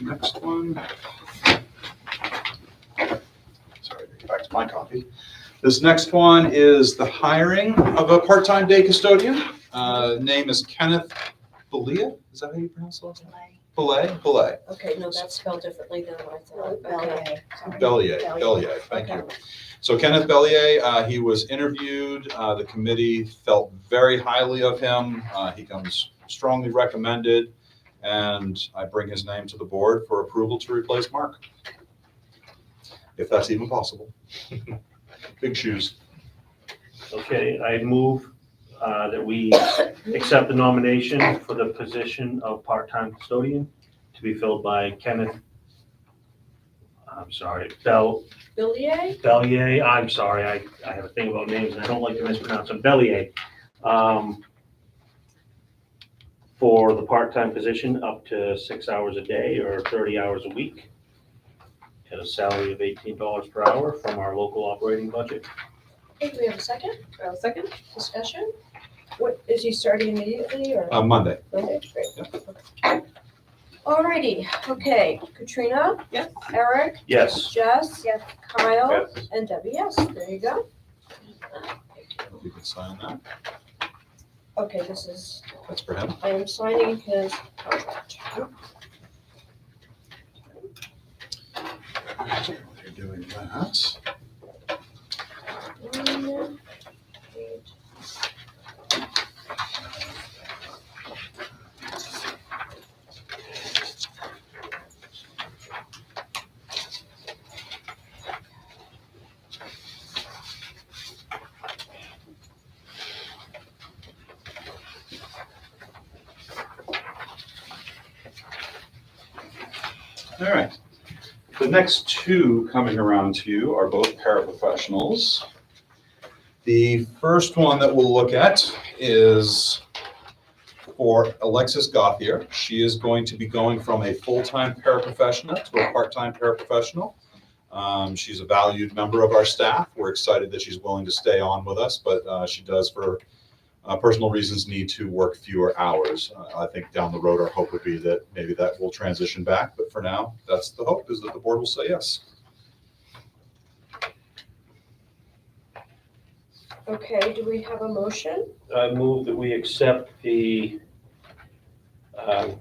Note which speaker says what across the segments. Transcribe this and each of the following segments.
Speaker 1: Next one. Sorry, get back to my copy. This next one is the hiring of a part-time day custodian. Uh, Name is Kenneth Belia, is that how you pronounce it? Belay, Belay,
Speaker 2: Okay, no, that's spelled differently than what I thought.
Speaker 3: Okay.
Speaker 1: Bellier, Bellier, thank you. So Kenneth Bellier, uh, he was interviewed. Uh, the committee felt very highly of him. Uh, he comes strongly recommended, and I bring his name to the board for approval to replace Mark, if that's even possible. Big shoes.
Speaker 4: Okay, I move uh, that we accept the nomination for the position of part-time custodian to be filled by Kenneth, I'm sorry, Bell,
Speaker 2: Billier?
Speaker 4: Bellier, I'm sorry, I, I have a thing about names, and I don't like to mispronounce them, Bellier. um, For the part-time position, up to six hours a day or thirty hours a week, at a salary of eighteen dollars per hour from our local operating budget.
Speaker 2: Okay, do we have a second
Speaker 3: I'll second.
Speaker 2: discussion? What, is he starting immediately or?
Speaker 1: Uh, Monday.
Speaker 2: Monday? Great. Alrighty, okay, Katrina?
Speaker 3: Yes.
Speaker 2: Eric?
Speaker 4: Yes.
Speaker 2: Jess?
Speaker 3: Yes.
Speaker 2: Kyle? And Debbie, yes, there you go.
Speaker 1: You can sign that.
Speaker 2: Okay, this is,
Speaker 1: That's for him.
Speaker 2: I am signing his contract.
Speaker 1: You're doing that.
Speaker 2: Um,
Speaker 1: All right. The next two coming around to you are both paraprofessionals. The first one that we'll look at is for Alexis Gothier. She is going to be going from a full-time paraprofessional to a part-time paraprofessional. Um, She's a valued member of our staff. We're excited that she's willing to stay on with us, but uh, she does, for uh, personal reasons, need to work fewer hours. Uh, I think down the road, our hope would be that maybe that will transition back, but for now, that's the hope, is that the board will say yes.
Speaker 2: Okay, do we have a motion?
Speaker 4: I uh, move that we accept the um,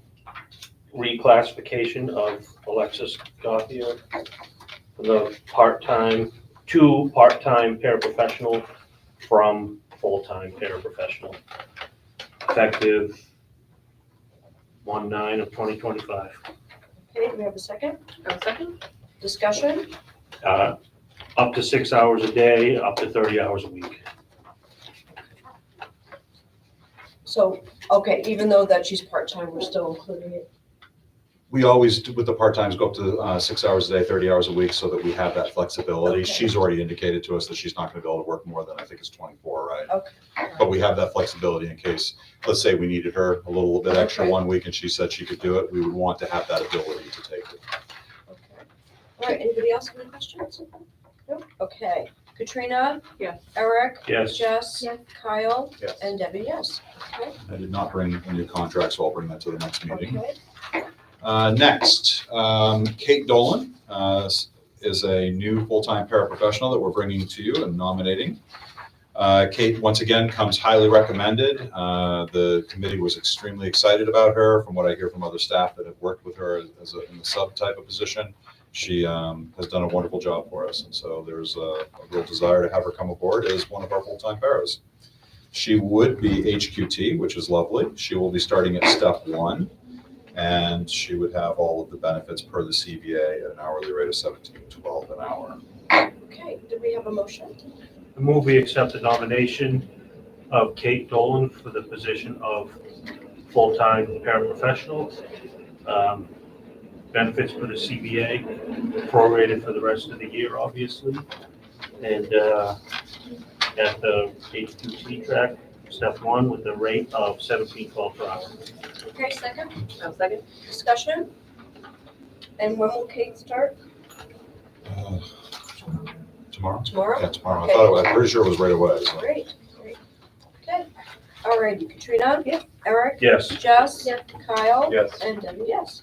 Speaker 4: reclassification of Alexis Gothier, the part-time, to part-time paraprofessional from full-time paraprofessional, effective one nine of twenty twenty-five.
Speaker 2: Okay, do we have a second
Speaker 3: I'll second.
Speaker 2: discussion?
Speaker 4: Uh, Up to six hours a day, up to thirty hours a week.
Speaker 2: So, okay, even though that she's part-time, we're still including it.
Speaker 1: We always, do- with the part-times, go up to uh, six hours a day, 30 hours a week, so that we have that flexibility.
Speaker 2: Okay.
Speaker 1: She's already indicated to us that she's not going to be able to work more than, I think it's 24, right?
Speaker 2: Okay.
Speaker 1: But we have that flexibility in case, let's say we needed her a little bit extra
Speaker 2: Okay.
Speaker 1: one week and she said she could do it, we would want to have that ability to take it.
Speaker 2: Okay. All right, anybody else have any questions? Nope, okay. Katrina?
Speaker 3: Yes.
Speaker 2: Eric?
Speaker 4: Yes.
Speaker 2: Jess?
Speaker 3: Yes.
Speaker 2: Kyle?
Speaker 1: Yes.
Speaker 2: And Debbie, yes. Okay,
Speaker 1: I did not bring a new contract, so I'll bring that to the next meeting.
Speaker 2: okay.
Speaker 1: Uh, Next, um, Kate Dolan uh, is a new full-time paraprofessional that we're bringing to you and nominating. Uh, Kate, once again, comes highly recommended. Uh, The committee was extremely excited about her, from what I hear from other staff that have worked with her as a in the sub type of position. She um, has done a wonderful job for us, and so there's a a real desire to have her come aboard as one of our full-time paras. She would be HQT, which is lovely. She will be starting at step one and she would have all of the benefits per the CBA at an hourly rate of seventeen twelve an hour.
Speaker 2: Okay, did we have a motion?
Speaker 4: I move we accept the nomination of Kate Dolan for the position of full-time paraprofessional. Um, Benefits for the CBA, prorated for the rest of the year, obviously. And uh, at the H2T track, step one, with the rate of seventeen twelve per hour.
Speaker 2: Okay, second
Speaker 3: I'll second.
Speaker 2: discussion? And when will Kate start?
Speaker 1: Uh, Tomorrow?
Speaker 2: Tomorrow?
Speaker 1: Yeah, tomorrow. I thought, it- I'm pretty sure it was right away. so.
Speaker 2: Great, great. Okay. All right, Katrina?
Speaker 3: Yes.
Speaker 2: Eric?
Speaker 4: Yes.
Speaker 2: Jess?
Speaker 3: Yes.
Speaker 2: Kyle?
Speaker 4: Yes.
Speaker 2: And Debbie, yes.